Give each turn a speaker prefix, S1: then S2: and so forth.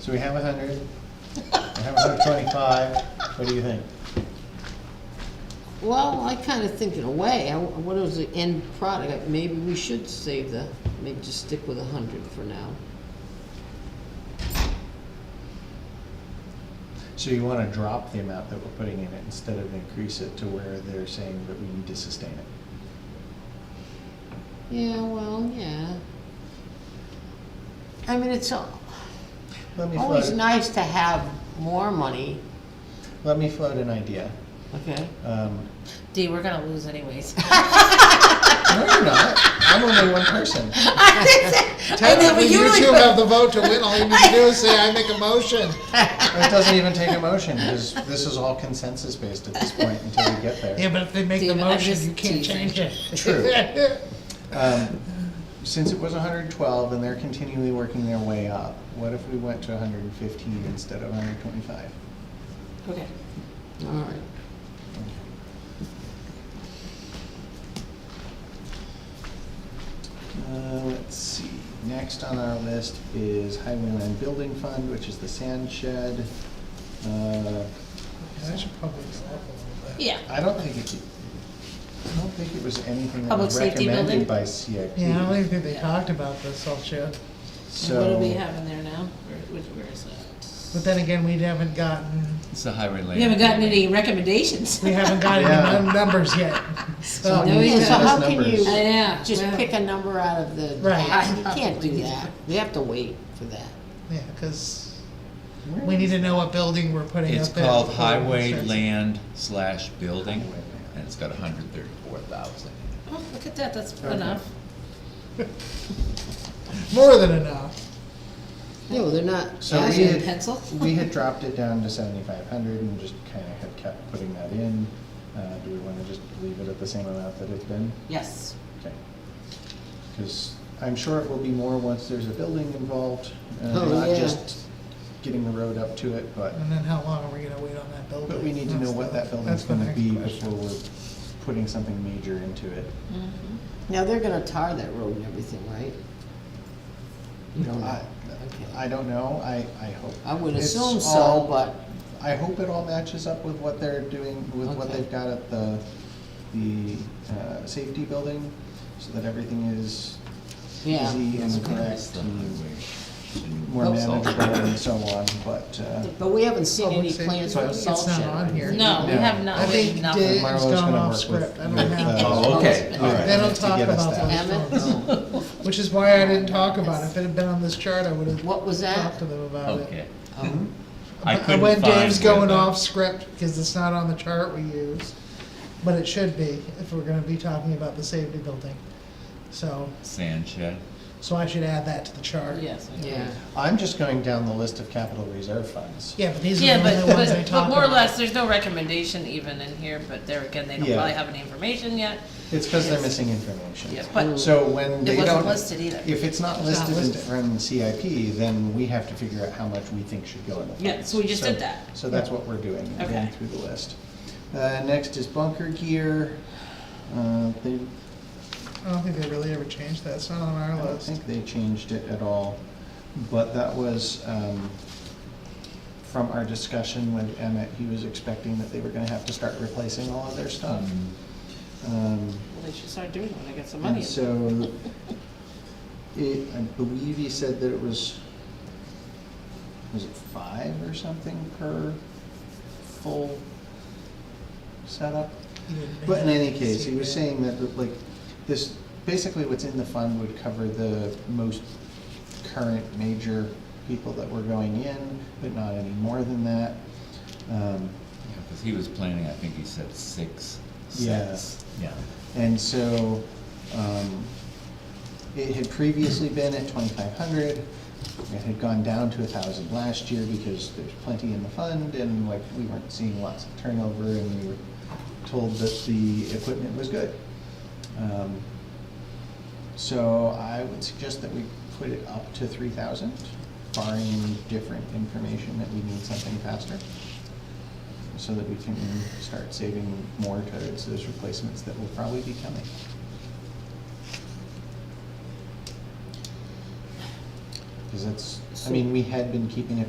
S1: So we have a hundred, we have hundred twenty-five, what do you think?
S2: Well, I kind of think in a way, I- what was the end product? Maybe we should save the, maybe just stick with a hundred for now.
S1: So you wanna drop the amount that we're putting in it instead of increase it to where they're saying that we need to sustain it?
S2: Yeah, well, yeah. I mean, it's al-
S1: Let me
S2: always
S1: float,
S2: nice to have more money,
S1: let me float an idea.
S2: okay?
S1: Um,
S3: D, we're gonna lose anyways.
S1: No, you're not, I'm only one person.
S3: know, but
S4: Technically, you
S3: usually
S4: two
S3: put-
S4: have the vote to win, all you need to do is say, I make a motion.
S1: It doesn't even take a motion, because this is all consensus-based at this point until we get there.
S4: Yeah, but if they make the
S3: David, I'm
S4: motion,
S3: just
S4: you can't
S3: teasing.
S4: change it.
S1: True. Um, Since it was hundred and twelve and they're continually working their way up, what if we went to hundred and fifteen instead of hundred and twenty-five?
S3: Okay.
S2: All right.
S1: Uh, let's see, next on our list is Highwayland Building Fund, which is the sand shed. Uh,
S4: I should probably go up a little bit.
S3: Yeah.
S1: I don't think it, I don't think it was anything that
S3: Public
S1: was
S3: safety building?
S1: recommended by CIP.
S4: Yeah, I don't even think they talked about this whole shit.
S1: So.
S3: What do we have in there now? Where, which- where is
S4: But
S3: that?
S4: then again, we haven't gotten,
S5: It's the highway lane.
S3: We haven't gotten any recommendations.
S4: we haven't gotten
S1: Yeah.
S4: any num- numbers yet. So,
S1: we
S2: Yeah,
S1: need to
S2: So
S1: get
S2: how
S1: those
S2: can
S1: numbers.
S2: you
S3: I know,
S2: just
S3: well.
S2: pick a number out of the
S4: Right.
S2: hat? You can't do that. We have to wait for that.
S4: yeah, because
S1: Where
S4: we need to know what building we're putting up.
S5: It's
S4: at
S5: called
S4: before we
S5: highway
S4: start.
S5: land slash building,
S1: Highway land.
S5: and it's got hundred thirty-four thousand.
S3: Oh, look at that, that's enough.
S4: More than enough.
S2: No, they're not
S1: So we
S2: asking.
S3: Actually, a
S1: had,
S3: pencil?
S1: we had dropped it down to seventy-five hundred and just kind of had kept putting that in. Uh, do we want to just leave it at the same amount that it's been?
S3: Yes.
S1: Okay. Because I'm sure it will be more once there's a building involved, uh,
S2: Oh,
S1: not
S2: yeah.
S1: just getting the road up to it, but,
S4: And then how long are we gonna wait on that building?
S1: but we need to
S4: That's
S1: know what
S4: the-
S1: that building's
S4: that's the
S1: gonna
S4: next
S1: be
S4: question.
S1: before we're putting something major into it.
S2: Now, they're gonna tar that road and everything, right? You don't know.
S1: I, I don't know, I, I hope.
S2: I would
S1: it's
S2: assume so,
S1: all-
S2: but,
S1: I hope it all matches up with what they're doing, with what
S2: Okay.
S1: they've got at the, the, uh, safety building, so that everything is
S2: yeah.
S1: easy and
S5: It's
S1: correct
S5: the
S1: and
S5: highway. Oh,
S1: more
S5: It's all-
S1: manageable and so on, but, uh,
S2: But we haven't seen
S4: Public
S2: any
S4: safety.
S2: plans for
S1: So
S2: a
S1: it's
S2: salt
S4: not
S2: shed.
S4: on
S2: right?
S4: here.
S3: No, we
S1: No.
S3: have
S4: I
S3: not,
S4: think
S3: we nothing.
S4: Dave's
S1: Marlo's
S4: gone
S1: gonna
S4: off
S1: work
S4: script.
S1: with-
S4: I don't
S1: with,
S4: have
S1: uh,
S4: that.
S5: Oh, okay, all
S1: Alright.
S5: right.
S4: They don't
S1: To
S4: talk
S1: get us
S4: about
S1: that.
S4: those
S2: Emmett?
S4: phone calls, which is why I didn't talk about it. If it had been on this chart, I would have
S2: What was that?
S4: talked to them about it.
S5: Okay.
S2: Oh.
S5: I
S4: But
S5: couldn't
S4: When Dave's
S5: find
S4: going
S5: whether-
S4: off script, because it's not on the chart we use, but it should be if we're gonna be talking about the safety building. So,
S5: Sand shed.
S4: so I should add that to the chart.
S3: Yes. okay.
S2: Yeah,
S1: I'm just going down the list of capital reserve funds.
S4: Yeah, but these are
S3: Yeah,
S4: the
S3: but,
S4: only ones they
S3: but,
S4: talk
S3: but more or
S4: about.
S3: less, there's no recommendation even in here, but there again, they don't
S1: Yeah.
S3: probably have any information yet.
S1: It's because they're missing information.
S3: Yeah, but
S1: So when they
S3: it
S1: don't.
S3: wasn't listed either.
S1: If it's not
S4: It's not
S1: listed in-
S4: listed.
S1: from the CIP, then we have to figure out how much we think should go in the funds.
S3: Yeah, so we just
S1: So-
S3: did that.
S1: So that's what we're doing, we're going
S3: Okay.
S1: through the list. Uh, next is bunker gear. Uh, they,
S4: I don't think they really ever changed that. It's not on
S1: I
S4: our
S1: don't
S4: list.
S1: think they changed it at all, but that was, um, from our discussion with Emmett, he was expecting that they were gonna have to start replacing all of their stuff.
S3: Mm-hmm.
S1: Um,
S3: Well, they should start doing it when they get some money.
S1: And so, it, I believe he said that it was, was it five or something per full setup?
S4: You didn't
S1: But in
S4: make
S1: any
S4: it
S1: case, he was
S4: easier.
S1: saying that, like, this, basically what's in the fund would cover the most current major people that were going in, but not any more than that. Um,
S5: Yeah, because he was planning, I think he said six
S1: Yeah.
S5: sets. Yeah.
S1: And so, um, it had previously been at twenty-five hundred, it had gone down to a thousand last year because there's plenty in the fund, and like, we weren't seeing lots of turnover, and we were told that the equipment was good. Um, So I would suggest that we put it up to three thousand, barring different information that we need something faster so that we can start saving more towards those replacements that will probably be coming. Because that's, I mean, we had been keeping it